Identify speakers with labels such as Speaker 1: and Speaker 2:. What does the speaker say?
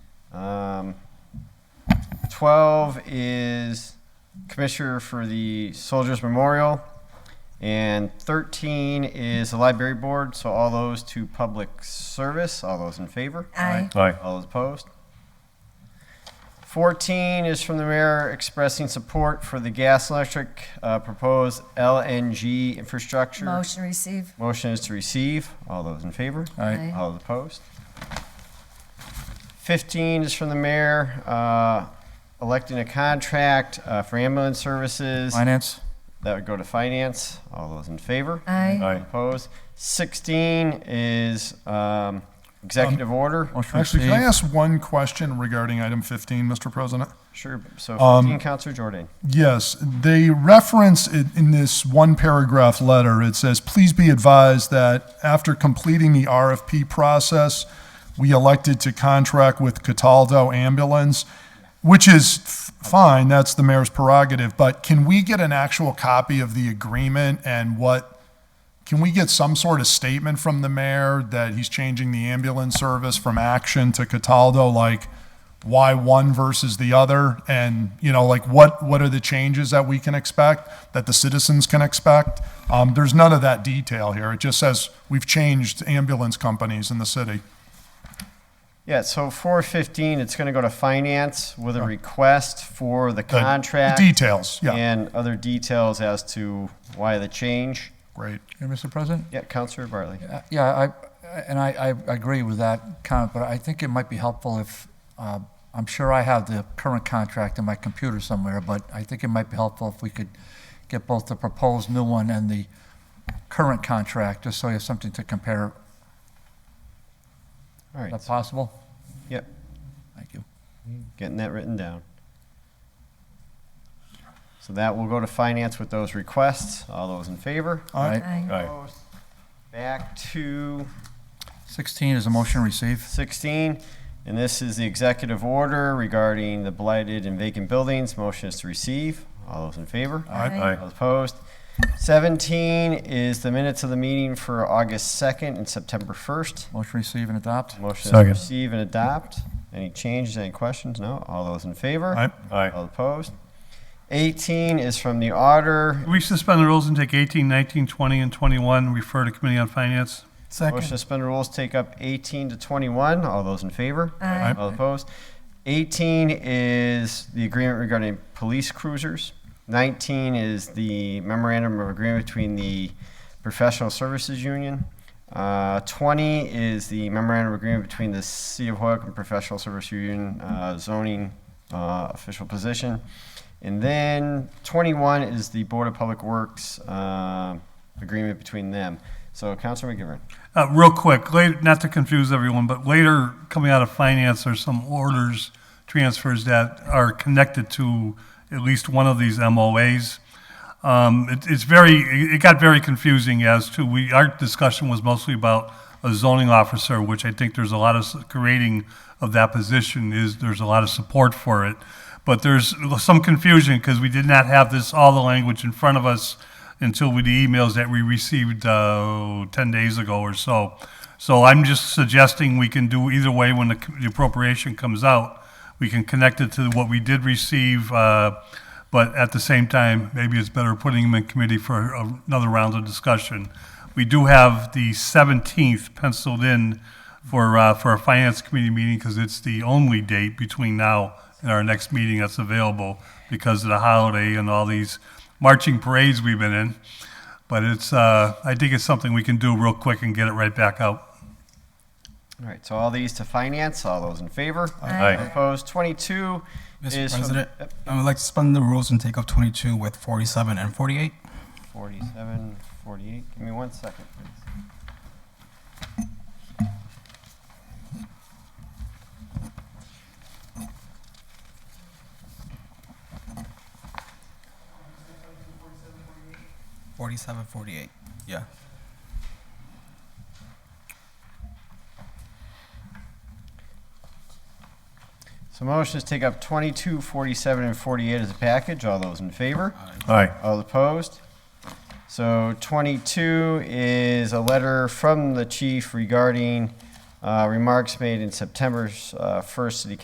Speaker 1: 12 Um, is Commissioner for the Soldiers Memorial. And 13 is the Library Board, so all those to public service. All those in favor?
Speaker 2: Aye.
Speaker 3: Aye.
Speaker 1: All those opposed? 14 is from the mayor expressing support for the gas and electric uh, proposed LNG infrastructure.
Speaker 2: Motion receive.
Speaker 1: Motion is to receive. All those in favor?
Speaker 2: Aye.
Speaker 1: All those opposed? 15 is from the mayor, uh, electing a contract uh, for ambulance services.
Speaker 3: Finance?
Speaker 1: That would go to finance. All those in favor?
Speaker 2: Aye.
Speaker 3: Aye.
Speaker 1: Opposed? 16 is um, executive order.
Speaker 3: Motion
Speaker 4: Actually, can I
Speaker 3: received.
Speaker 4: ask one question regarding item 15, Mr. President?
Speaker 1: Sure, so
Speaker 4: Um,
Speaker 1: 15, Counselor Jordan.
Speaker 4: Yes, they reference it in this one paragraph letter. It says, please be advised that after completing the RFP process, we elected to contract with Cataldo Ambulance, which is f- fine, that's the mayor's prerogative, but can we get an actual copy of the agreement and what, can we get some sort of statement from the mayor that he's changing the ambulance service from Action to Cataldo? Like, why one versus the other? And, you know, like, what, what are the changes that we can expect, that the citizens can expect? Um, there's none of that detail here. It just says we've changed ambulance companies in the city.
Speaker 1: Yeah, so 415, it's going to go to finance with a request for the
Speaker 4: The- the
Speaker 1: contract.
Speaker 4: Details, yeah,
Speaker 1: And other details as to why the change.
Speaker 4: great.
Speaker 3: Yeah, Mr. President?
Speaker 1: Yeah, Counselor Bartley.
Speaker 3: Uh, Yeah, I, and I, I agree with that comment, but I think it might be helpful if, uh, I'm sure I have the current contract in my computer somewhere, but I think it might be helpful if we could get both the proposed new one and the current contract, just so you have something to compare.
Speaker 1: All
Speaker 3: Is
Speaker 1: right,
Speaker 3: that possible?
Speaker 1: yep,
Speaker 3: Thank you.
Speaker 1: getting that written down. So that will go to finance with those requests. All those in favor?
Speaker 4: All right.
Speaker 2: Aye.
Speaker 1: Opposed? Back to
Speaker 3: 16 is a motion received.
Speaker 1: 16, and this is the executive order regarding the blighted and vacant buildings. Motion is to receive. All those in favor?
Speaker 2: Aye.
Speaker 1: All opposed? 17 is the minutes of the meeting for August 2nd and September 1st.
Speaker 3: Motion received and adopt.
Speaker 1: Motion is to
Speaker 3: Second.
Speaker 1: receive and adopt. Any changes, any questions? No? All those in favor?
Speaker 4: Aye.
Speaker 1: All opposed? 18 is from the auditor.
Speaker 5: We suspend the rules and take 18, 19, 20, and 21, refer to Committee on Finance.
Speaker 1: Motion to suspend the rules, take up 18 to 21. All those in favor?
Speaker 2: Aye.
Speaker 1: All opposed? 18 is the agreement regarding police cruisers. 19 is the memorandum of agreement between the professional services union. Uh, 20 is the memorandum of agreement between the City of Hoyoke and Professional Service Union uh, zoning uh, official position. And then 21 is the Board of Public Works uh, agreement between them. So Councilor McGivern.
Speaker 5: Uh, Real quick, later, not to confuse everyone, but later, coming out of Finance, there's some orders, transfers that are connected to at least one of these MOAs. Um, it- It's very, it got very confusing as to, we, our discussion was mostly about a zoning officer, which I think there's a lot of s- creating of that position is, there's a lot of support for it. But there's some confusion because we did not have this, all the language in front of us until with the emails that we received uh, 10 days ago or so. So I'm just suggesting we can do either way when the c- the appropriation comes out. We can connect it to what we did receive, uh, but at the same time, maybe it's better putting them in committee for a- another round of discussion. We do have the 17th penciled in for, uh, for a finance committee meeting because it's the only date between now and our next meeting that's available because of the holiday and all these marching parades we've been in. But it's, uh, I think it's something we can do real quick and get it right back out.
Speaker 1: All right, so all these to finance. All those in favor?
Speaker 2: Aye.
Speaker 1: All Opposed? 22
Speaker 6: Mr.
Speaker 1: is from-
Speaker 6: President,
Speaker 1: Yep,
Speaker 6: I would like to suspend the rules and take up 22 with 47 and 48.
Speaker 1: 47, 48. Give me one second, please.
Speaker 6: Forty-seven, forty-eight. Yeah.
Speaker 1: So motions take up 22, 47, and 48 as a package. All those in favor?
Speaker 3: Aye.
Speaker 1: All opposed? So 22 is a letter from the chief regarding uh, remarks made in September's uh, first city